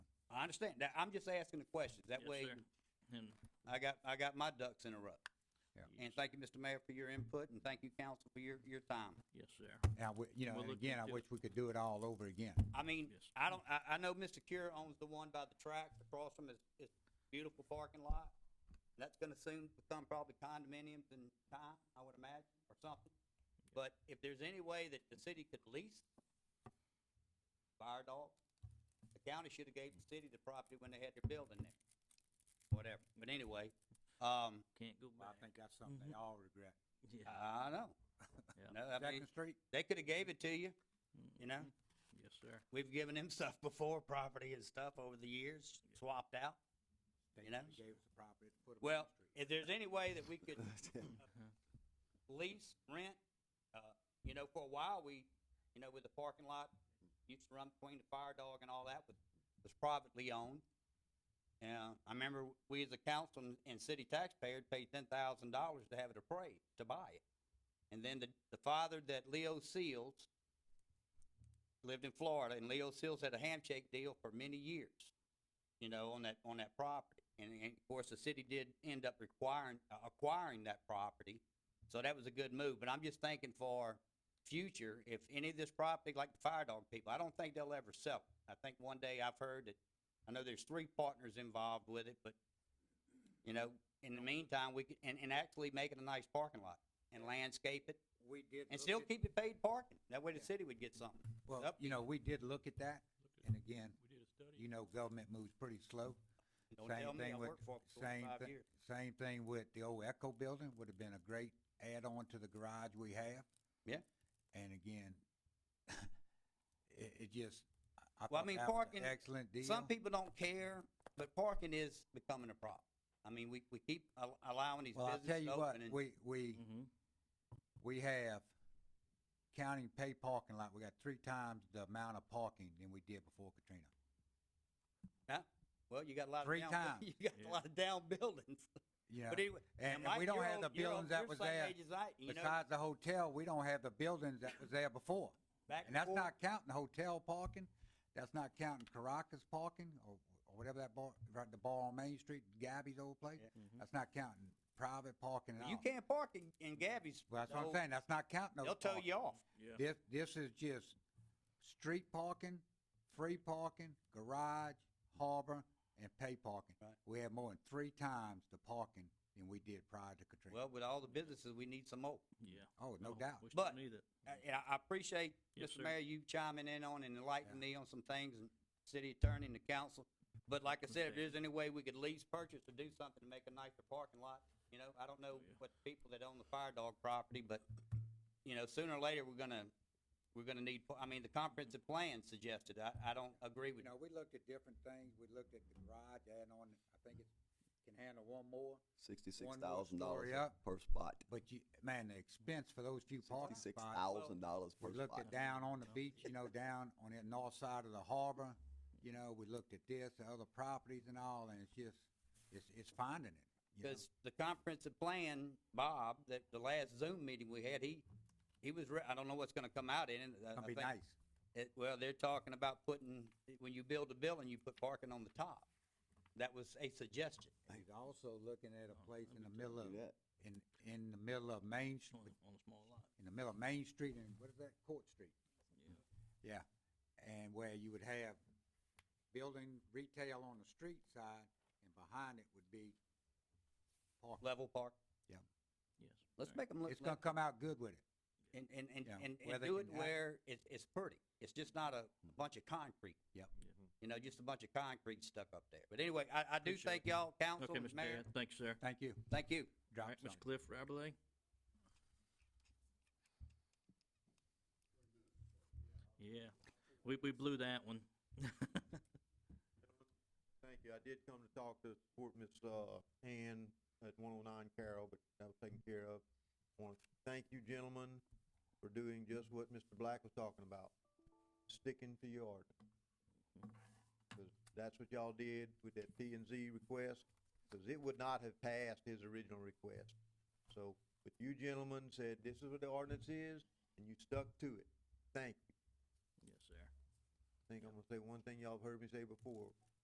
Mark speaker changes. Speaker 1: understand. That, I'm just asking the questions. That
Speaker 2: Yes,
Speaker 1: way,
Speaker 2: sir. And
Speaker 1: I got, I got my ducks in a row.
Speaker 2: Yes.
Speaker 1: And thank you, Mr. Mayor, for your input, and thank you, council, for your, your time.
Speaker 2: yes, sir.
Speaker 3: And I wi- you know,
Speaker 2: We'll
Speaker 3: and
Speaker 2: look
Speaker 3: again, I
Speaker 2: into it.
Speaker 3: wish we could do it all over again.
Speaker 1: I mean,
Speaker 2: Yes.
Speaker 1: I don't, I, I know Mr. Cure owns the one by the tracks across from his, his beautiful parking lot. That's gonna soon become probably condominiums in time, I would imagine, or something. But if there's any way that the city could lease fire dogs, the county should've gave the city the property when they had their building there. Whatever, but anyway, um,
Speaker 2: Can't go
Speaker 3: I
Speaker 2: back.
Speaker 3: think that's something they
Speaker 1: Mm-hmm.
Speaker 3: all regret.
Speaker 2: Yeah.
Speaker 1: I know. No,
Speaker 2: Yeah.
Speaker 1: I mean,
Speaker 3: Second Street,
Speaker 1: they could've gave it to you, you know?
Speaker 2: Mm, Yes, sir.
Speaker 1: We've given him stuff before, property and stuff over the years, swapped out. You
Speaker 3: they
Speaker 1: know?
Speaker 3: they gave us the property. to put 'em on the
Speaker 1: Well,
Speaker 3: street.
Speaker 1: if there's any way that we could
Speaker 2: Uh-huh.
Speaker 1: lease, rent, uh, you know, for a while, we, you know, with the parking lot, used to run between the fire dog and all that, was, was privately owned. And I remember we as a council and- and city taxpayer paid ten thousand dollars to have it appraised, to buy it. And then the, the father that Leo Seals lived in Florida, and Leo Seals had a handshake deal for many years, you know, on that, on that property. And, and of course, the city did end up requiring, uh, acquiring that property, so that was a good move, but I'm just thinking for future, if any of this property, like the fire dog people, I don't think they'll ever sell. it. I think one day I've heard that, I know there's three partners involved with it, but, you know, in the meantime, we could, and, and actually make it a nice parking lot and landscape it
Speaker 3: We did.
Speaker 1: and
Speaker 3: look
Speaker 1: still
Speaker 3: at-
Speaker 1: keep it paid parking. That way the
Speaker 3: Yeah.
Speaker 1: city would get something.
Speaker 3: Well,
Speaker 1: up
Speaker 3: you know, we did look at that, and again,
Speaker 2: We did a study.
Speaker 3: you know, government moves pretty slow.
Speaker 1: Don't
Speaker 3: Same
Speaker 1: tell me,
Speaker 3: thing
Speaker 1: I
Speaker 3: with-
Speaker 1: worked for it for
Speaker 3: Same,
Speaker 1: forty-five
Speaker 3: thi-
Speaker 1: years.
Speaker 3: same thing with the old Echo Building, would have been a great add-on to the garage we have.
Speaker 1: Yeah.
Speaker 3: And again, it, it just, I- I
Speaker 1: Well, I
Speaker 3: thought
Speaker 1: mean,
Speaker 3: that was an
Speaker 1: parking-
Speaker 3: excellent deal.
Speaker 1: Some people don't care, but parking is becoming a problem. I mean, we, we keep al- allowing these
Speaker 3: Well, I'll tell
Speaker 1: businesses
Speaker 3: you
Speaker 1: to
Speaker 3: what,
Speaker 1: open and,
Speaker 3: we, we,
Speaker 2: Mm-hmm.
Speaker 3: we have counting pay parking lot, we got three times the amount of parking than we did before Katrina.
Speaker 1: well, you got a lot of.
Speaker 3: Three
Speaker 1: down-
Speaker 3: times.
Speaker 1: You got
Speaker 2: Yeah.
Speaker 1: a lot of down buildings.
Speaker 3: You know,
Speaker 1: But anyway,
Speaker 3: and,
Speaker 1: now,
Speaker 3: and
Speaker 1: Mike,
Speaker 3: we don't
Speaker 1: you're
Speaker 3: have
Speaker 1: on-
Speaker 3: the
Speaker 1: you're on-
Speaker 3: buildings that
Speaker 1: you're
Speaker 3: was
Speaker 1: same
Speaker 3: there.
Speaker 1: age as I, you know,
Speaker 3: Besides the hotel, we don't have the buildings that was there before.
Speaker 1: back
Speaker 3: And that's
Speaker 1: forth.
Speaker 3: not counting hotel parking, that's not counting Caracas parking, or, or whatever that bar, right, the bar on Main Street, Gabby's old place.
Speaker 1: Yeah.
Speaker 2: Mhm.
Speaker 3: That's not counting private parking at all.
Speaker 1: You can't park in, in Gabby's.
Speaker 3: Well, that's what I'm
Speaker 1: so
Speaker 3: saying, that's not counting those
Speaker 1: They'll tow
Speaker 3: parking.
Speaker 1: you off.
Speaker 2: Yeah.
Speaker 3: This, this is just street parking, free parking, garage, harbor, and pay parking.
Speaker 1: Right.
Speaker 3: We have more than three times the parking than we did prior to Katrina.
Speaker 1: Well, with all the businesses, we need some more.
Speaker 2: Yeah.
Speaker 3: Oh, no doubt.
Speaker 2: We still
Speaker 1: But-
Speaker 2: need it.
Speaker 1: I- Uh, And I- I appreciate,
Speaker 2: Yes,
Speaker 1: Mr.
Speaker 2: sir.
Speaker 1: Mayor, you chiming in on and enlightening me on some things, and city attorney and the council. But like I said, if
Speaker 2: Okay.
Speaker 1: there's any way we could lease, purchase, or do something to make a nicer parking lot, you know, I don't know
Speaker 2: Oh, yeah.
Speaker 1: what the people that own the fire dog property, but, you know, sooner or later, we're gonna, we're gonna need, I mean, the comprehensive plan suggested, I, I don't agree
Speaker 3: You
Speaker 1: with
Speaker 3: know, we looked at different things, we looked at the garage, adding on, I think it can handle one more,
Speaker 4: Sixty-six
Speaker 3: One more
Speaker 4: thousand dollars
Speaker 3: story up.
Speaker 4: per spot.
Speaker 3: but you, man, the expense for those few parking
Speaker 4: Sixty-six
Speaker 3: spots.
Speaker 4: thousand dollars per
Speaker 3: We looked
Speaker 4: spot.
Speaker 3: at down on the beach, you know, down on the north side of the harbor, you know, we looked at this, the other properties and all, and it's just, it's, it's finding it. you know?
Speaker 1: Because the comprehensive plan, Bob, that the last Zoom meeting we had, he, he was, re- I don't know what's gonna come out in it. I- I
Speaker 3: It's gonna be
Speaker 1: think-
Speaker 3: nice.
Speaker 1: it, well, they're talking about putting, when you build a building, you put parking on the top. That was a suggestion.
Speaker 3: He's also looking at a
Speaker 2: Oh,
Speaker 3: place
Speaker 2: let
Speaker 3: in
Speaker 2: me
Speaker 3: the
Speaker 2: tell
Speaker 3: middle of,
Speaker 4: Do that.
Speaker 3: in, in the middle of Main, Sh-
Speaker 2: On, on a small lot.
Speaker 3: in the middle of Main Street and what is that, Court Street?
Speaker 2: Yeah.
Speaker 3: Yeah, and where you would have building retail on the street side and behind it would be parking.
Speaker 1: Level park.
Speaker 2: Yes.
Speaker 1: Let's
Speaker 2: sir.
Speaker 1: make them look,
Speaker 3: It's gonna come out good with it.
Speaker 1: and, and, and,
Speaker 3: yeah,
Speaker 1: and,
Speaker 3: where
Speaker 1: and
Speaker 3: they
Speaker 1: do it
Speaker 3: can act.
Speaker 1: where it's, it's pretty. It's just not a bunch of concrete.
Speaker 3: Yep.
Speaker 1: You know, just a bunch of concrete stuck up there. But anyway, I, I do
Speaker 2: Mm-hmm. Appreciate
Speaker 1: thank
Speaker 2: it.
Speaker 1: y'all, council,
Speaker 2: Okay, Mr.
Speaker 1: mayor.
Speaker 2: Mayor. Thanks, sir.
Speaker 3: Thank you.
Speaker 1: Thank you.
Speaker 2: All
Speaker 3: Drop
Speaker 2: right, Mr.
Speaker 3: something.
Speaker 2: Cliff Rabelay. Yeah, we, we blew that one.
Speaker 5: Thank you. I did come to talk to support Ms. uh, Ann at one oh nine Carroll, but that was taken care of. Want to thank you gentlemen for doing just what Mr. Black was talking about, sticking to your ordinance. 'Cause that's what y'all did with that P and Z request, because it would not have passed his original request. So, but you gentlemen said, this is what the ordinance is, and you stuck to it. Thank you.
Speaker 2: Yes, sir.
Speaker 5: I think I'm gonna say one thing y'all have heard me say before,